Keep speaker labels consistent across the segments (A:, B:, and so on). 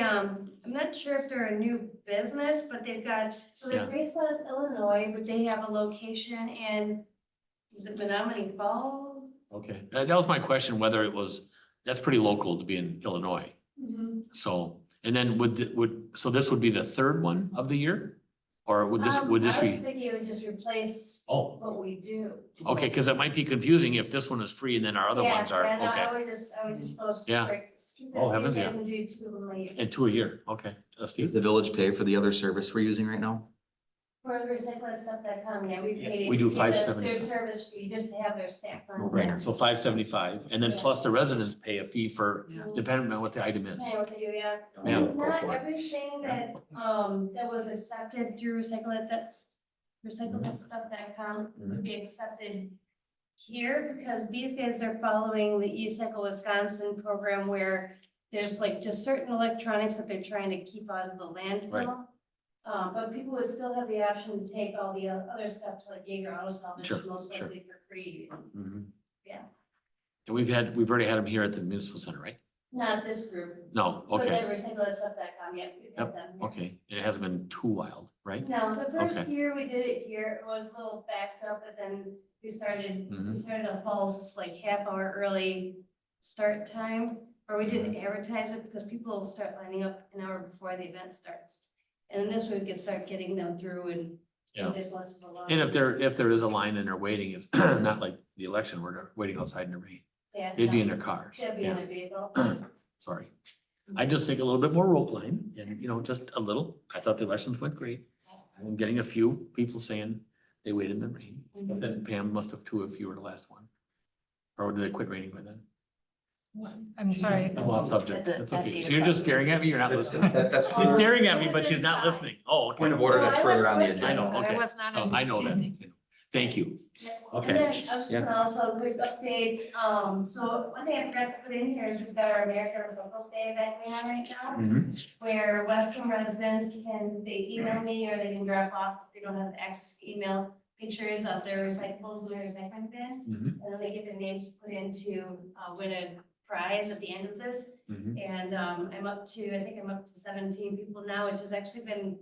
A: um, I'm not sure if they're a new business, but they've got, so they're
B: Yeah.
A: based out of Illinois, but they have a location in, is it Menominee Falls?
B: Okay, that, that was my question, whether it was, that's pretty local to be in Illinois. Mm-hmm.
A: Um,
B: So, and then would, the- would, so this would be the third one of the year? Or would this, would this
A: Um, I was
B: be?
A: thinking it would just replace
B: Oh,
A: what we do.
B: okay, because it might be confusing if this one is free and then our other
A: Yeah,
B: ones are,
A: yeah, no,
B: okay.
A: I would just, I would just post.
B: Yeah.
A: like, stupid
B: Oh, heavens,
A: things And do two of them a year.
B: And two a year, okay. Uh,
C: Does
B: Steve?
C: the village pay for the other service we're using right now?
A: For recyclingstuff.com, yeah, we
B: Yeah,
A: pay.
B: we do
A: the-
B: 5.70.
A: Their service fee, just to have their staff on.
C: No-brainer.
B: So five seventy-five, and then plus the residents pay a fee for, depending on what the item is.
A: Hey, what to do, yeah.
B: Yeah,
C: Go
A: Not
C: for it.
A: everything that, um, that was accepted through recycle it, that's, recycle
B: Mm-hmm.
A: that stuff that com would be accepted here, because these guys are following the E-Cycle Wisconsin program where there's like just certain electronics that they're trying to keep out of the
B: Right.
A: landfill. Uh, but people would still have the option to take all the o- other stuff to like Jaeger Auto Salvage,
B: Sure,
A: most
B: sure.
A: likely for free.
B: Mhm.
A: Yeah.
B: And we've had, we've already had them here at the municipal center, right?
A: Not this group,
B: No,
A: but
B: okay,
A: then recycle that stuff that com, yeah, we've
B: Yep,
A: had them. yeah.
B: okay. It hasn't been too wild, right?
A: No, the first
B: Okay.
A: year we did it here, it was a little backed up, but then we started, we
B: Mhm.
A: started a false, like half hour early start time, or we didn't
B: Mm-hmm.
A: advertise it because people will start lining up an hour before the event starts. And then this way we could start getting them through and
B: Yeah.
A: there's less of a line.
B: And if there, if there is a line and they're waiting, it's not like the election, we're waiting outside in the rain.
A: Yeah,
B: They'd be in
A: no.
B: their cars.
A: They'd be in
B: Yeah,
A: their vehicle.
B: sorry. I just think a little bit more rope line and, you know, just a little. I thought the elections went great. I'm getting a few people saying they waited in the rain.
A: Mm-hmm.
B: But then Pam must have too if you were the last one. Or did it quit raining by then?
D: I'm sorry.
B: I'm off subject.
E: At the-
B: That's
E: at
B: okay.
E: the
B: So you're just staring at me? You're not
C: That's-
B: listening?
C: that's- that's
B: She's
C: further-
B: staring at me, but she's not listening. Oh, okay.
C: Point of order, that's further on the agenda.
B: I know,
D: I
B: okay.
D: was not
B: So I know that.
D: understanding.
B: Thank you. Okay.
A: And then I was just gonna also a quick update, um, so one thing I forgot to put in here is we've got our American Recycle Day event going on right now. where Western residents can, they email me or they can drop off, if they don't have access to email, pictures of their recyclables and their recycling bin.
B: Mhm,
A: And then they get their names put into, uh, win a prize at the end of this.
B: mhm.
A: And, um, I'm up to, I think I'm up to seventeen people now, which has actually been,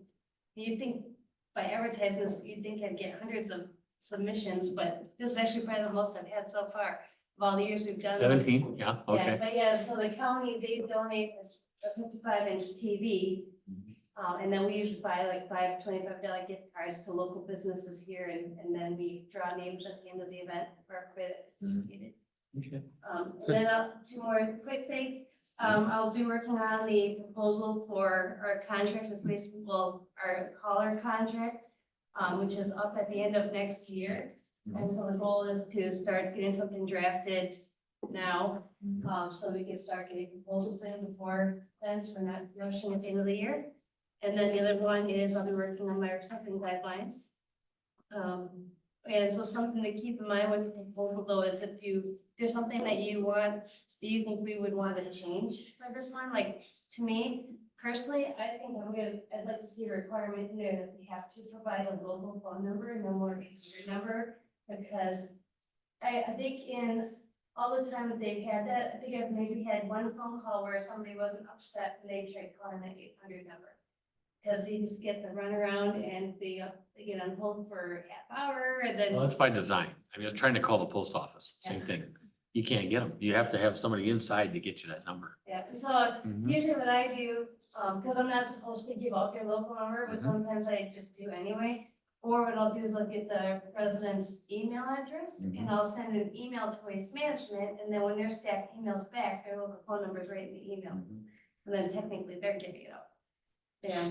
A: you'd think by advertising this, you'd think I'd get hundreds of submissions, but this is actually probably the most I've had so far of all the years we've done. this.
B: Seventeen, yeah,
A: Yeah,
B: okay.
A: but yeah, so the county, they donate this fifty-five inch TV.
B: Mm-hmm.
A: Um, and then we usually buy like five twenty-five dollar gift cards to local businesses here and, and then we draw names at the end of the event for a bit
B: Mm-hmm.
A: participated.
B: Okay.
A: Um, and then uh, two more quick things. Um, I'll be working on the proposal for our contract with waste, well, our hauler contract, um, which is up at the end of next year. And so the goal is to start getting something drafted now, um, so we can start getting proposals in before then, so we're not rushing at the end of the year. And then the other one is I'll be working on my recycling guidelines. Um, and so something to keep in mind with the proposal though is if you, there's something that you want, that you think we would want to change for this one, like, to me, personally, I think I'm gonna, I'd like to see a requirement in there that we have to provide a local phone number and a more secure number, because I, I think in all the time that they've had that, I think I've maybe had one phone call where somebody wasn't upset and they tried calling that eight hundred number. Cause you just get the runaround and they, uh, they get on hold for half hour and then.
B: Well, that's by design. I mean, I'm trying to call the post office, same
A: Yeah.
B: thing. You can't get them. You have to have somebody inside to get you that number.
A: Yeah, and so
B: Mhm.
A: usually what I do, um, because I'm not supposed to give out their local number, but
B: Mhm.
A: sometimes I just do anyway. Or what I'll do is I'll get the resident's email address and
B: Mhm.
A: I'll send an email to Waste Management. And then when their staff emails back, their local phone number is right in the email.
B: Mhm.
A: And then technically they're giving it out. Yeah,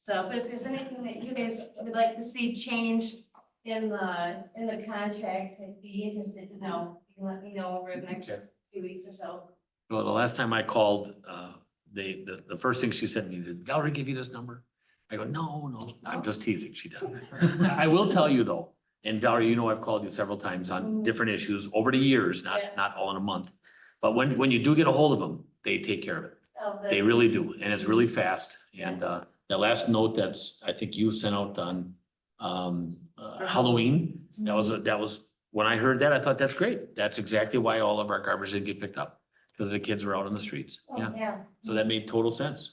A: so, but if there's anything that you guys would like to see changed in the, in the contract, I'd be interested to know. You can let me know over the next
B: Okay.
A: few weeks or so.
B: Well, the last time I called, uh, they, the, the first thing she sent me, did Valerie give you this number? I go, no, no, I'm just teasing. She doesn't. I will tell you though, and Valerie, you know, I've called you several times on
A: Mm.
B: different issues over the years, not,
A: Yeah.
B: not all in a month. But when, when you do get a hold of them, they take care of it.
A: of Oh, the-
B: They really do, and it's really fast. And uh, that last note that's, I think you sent out on um, uh, Halloween, that was, that was, when I heard that, I thought, that's great. That's exactly why all of our garbage didn't get picked up, because the kids were out on the streets.
A: Oh,
B: Yeah,
A: Yeah.
B: so that made total sense.